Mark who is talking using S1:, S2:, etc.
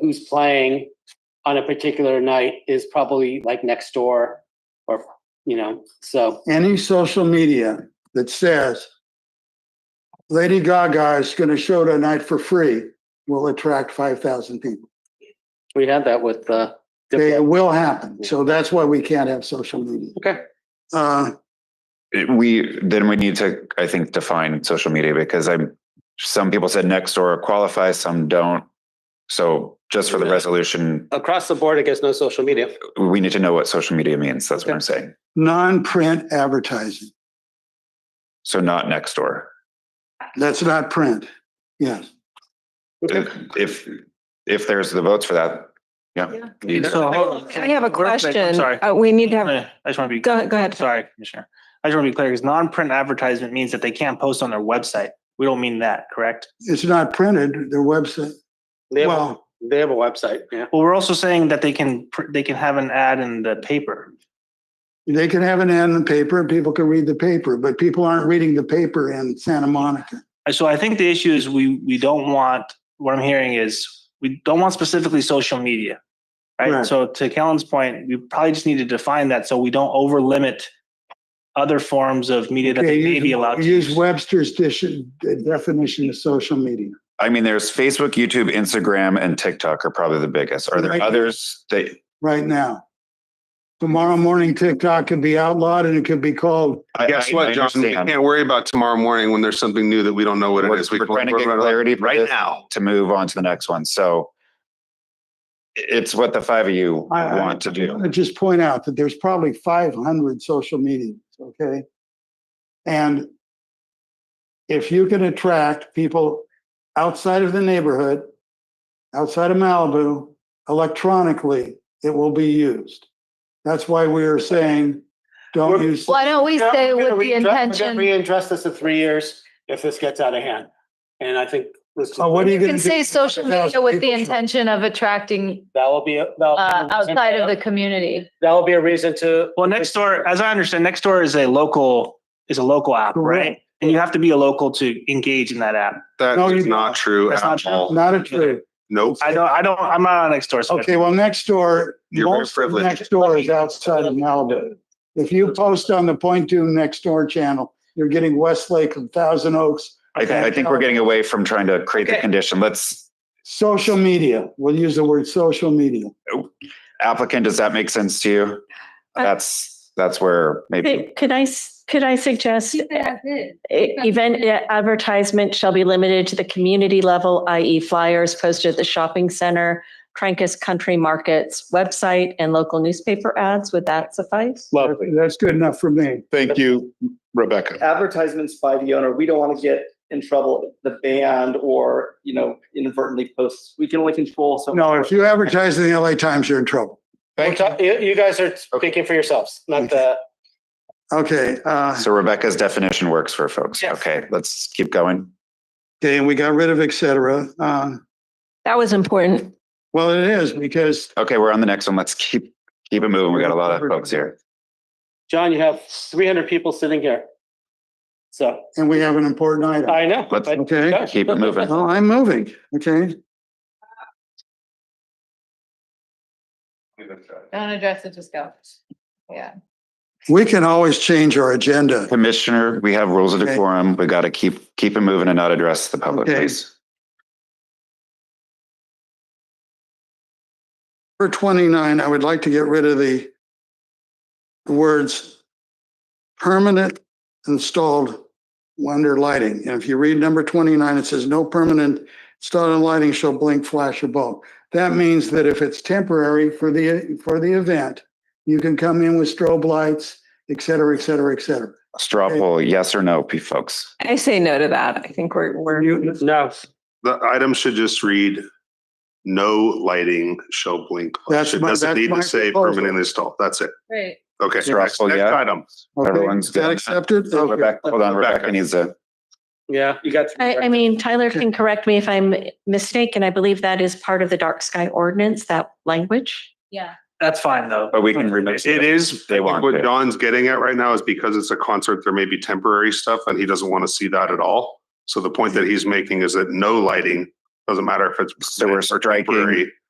S1: who's playing on a particular night is probably like next door or, you know, so
S2: any social media that says Lady Gaga is going to show tonight for free will attract 5,000 people.
S1: we had that with uh
S2: They, it
S1: Diplo.
S2: will happen. So that's why we can't have social media.
S1: Okay.
S2: Uh,
S3: it- we then we need to i think define social media because i'm some people said next door qualify some don't so just for the
S1: Yeah.
S3: resolution
S1: Across the board, I guess no social media.
S3: we need to know what social media means that's what i'm saying
S2: non-print advertising.
S3: so not next door
S2: That's not print. Yes.
S1: Okay.
S3: if if there's the votes for that yeah, You-
S4: So, hold-
S5: I have a
S4: real quick, I'm
S5: question.
S4: Sorry,
S5: Uh, We need to have,
S4: I just want to be,
S5: go, go ahead.
S4: sorry, Commissioner. I just want to be clear, because non-print advertisement means that they can't post on their website. We don't mean that, correct?
S2: It's not printed, their website.
S1: They have, a-
S2: Well,
S1: they have a website, yeah.
S4: Well, we're also saying that they can, pr- they can have an ad in the paper.
S2: they can have an ad in the paper and people can read the paper, but people aren't reading the paper in Santa Monica.
S4: Uh, So I think the issue is we, we don't want, what I'm hearing is, we don't want specifically social media. Right?
S2: Right.
S4: So to Kellen's point, we probably just need to define that so we don't over limit other forms of media that
S2: Okay,
S4: they may
S2: use-
S4: be
S1: Oh,
S4: allowed to
S2: Use
S4: use.
S2: Webster's dish- definition of social media.
S3: i mean there's facebook youtube instagram and tiktok are probably the biggest are there
S2: Right.
S3: others that
S2: right now. Tomorrow morning, TikTok could be outlawed and it could be called,
S3: I-
S6: Guess
S3: I- I
S6: what, John? We
S3: understand.
S6: can't worry about tomorrow morning when there's something new that we don't know what it
S3: We're-
S6: is.
S3: we're
S6: can
S3: trying to
S6: work
S3: get
S6: around it
S3: clarity for
S6: Right
S3: this.
S6: now.
S3: to move on to the next one so it's what the five of you
S2: I- I-
S3: want to
S2: I
S3: do
S2: want to just point out that there's probably 500 social medias, okay? And if you can attract people outside of the neighborhood, outside of Malibu, electronically, it will be used. That's why we are saying, don't
S1: We're-
S2: use,
S7: Why don't we
S1: Yeah,
S7: say
S1: we're gonna
S7: with the
S1: readdress- We're
S7: intention,
S1: gonna readdress this in three years if this gets out of hand. And I think let's just-
S2: Oh, what are you
S7: you
S2: going to
S7: can
S2: do?
S7: say social
S2: 100,000
S7: media with the
S2: people show up.
S7: intention of attracting
S1: That will be, a- that'll.
S7: uh, outside of the community.
S1: That will be a reason to.
S4: Well, next door, as I understand, next door is a local, is a local app, right?
S2: Correct.
S4: And you have to be a local to engage in that app.
S6: That
S2: No,
S6: is
S2: you-
S6: not true
S4: That's not
S6: at
S4: true.
S6: all.
S2: Not a true.
S6: Nope.
S4: I don't, I don't, I'm not on next door. so-
S2: Okay, well, next door,
S6: You're very
S2: most of
S6: privileged.
S2: next door is outside of Malibu. If you post on the Point Dune Next Door channel, you're getting Westlake and Thousand Oaks.
S3: I, th- I think we're getting away from trying to create the
S1: Okay.
S3: condition. Let's
S2: Social media, we'll use the word social media.
S3: applicant, does that make sense to you?
S2: Uh,
S8: I-
S3: That's, that's where maybe,
S8: Could could I, s- could I suggest uh, e- event advertisement shall be limited to the community level, i.e. flyers posted at the shopping center, Trancas Country Markets website and local newspaper ads? Would that suffice?
S2: Lovely. That's good enough for me.
S6: Thank you,
S2: Uh,
S6: Rebecca.
S9: advertisements by the owner, we don't want to get in trouble, the band or, you know, inadvertently posts. We can only control so.
S2: No, if you advertise in the LA Times, you're in trouble.
S1: We're
S3: Thank you.
S1: ta- You, you guys are speaking for yourselves, not the,
S2: Okay, uh,
S3: so Rebecca's definition works for folks.
S1: Yes.
S3: Okay, let's keep going.
S2: okay, and we got rid of et cetera. Uh,
S8: That was important.
S2: well, it is because
S3: Okay, we're on the next one. Let's keep, keep it moving. We got a lot of folks here.
S1: John, you have three hundred people sitting here. So,
S2: and we have an important item.
S1: I know.
S3: Let's-
S1: but-
S2: Okay.
S3: Keep it moving.
S2: Well, I'm moving, okay?
S7: Don't address it, just go. Yeah.
S2: We can always change our agenda.
S3: Commissioner, we have rules of
S2: Okay.
S3: decorum. We got to keep, keep it moving and not address the public,
S2: Okay.
S3: please.
S2: For 29, I would like to get rid of the words permanent installed under lighting. And if you read number 29, it says no permanent installed lighting shall blink, flash or bulb. That means that if it's temporary for the, for the event, you can come in with strobe lights, et cetera, et cetera, et cetera.
S3: Straw
S2: Okay.
S3: poll, yes or no, p- folks?
S5: I say no to that. I think we're, we're.
S2: You-
S1: No,
S6: The item should just read, no lighting shall blink.
S2: That's
S6: lights." It
S2: my-
S6: doesn't
S2: that's
S6: need
S2: my
S6: to say
S2: proposal.
S6: permanent install. That's it.
S7: Right.
S6: Okay.
S3: Straw
S6: Next
S3: poll,
S6: next
S3: yeah.
S6: item.
S2: okay,
S3: Everyone's
S2: Is that
S3: doing that.
S2: accepted? Thank you.
S3: Oh, Rebecca, hold on,
S6: Rebecca.
S3: Rebecca needs a.
S1: yeah, you got.
S8: I, I mean, Tyler can correct me if I'm mistaken. I believe that is part of the dark sky ordinance, that language.
S7: Yeah.
S4: That's fine, though.
S3: But we can remove
S6: It is.
S3: They
S6: I think
S3: want to.
S6: What John's getting at right now is because it's a concert, there may be temporary stuff and he doesn't want to see that at all. So the point that he's making is that no lighting, doesn't matter if it's.
S3: So we're
S6: or
S3: striking
S6: temporary,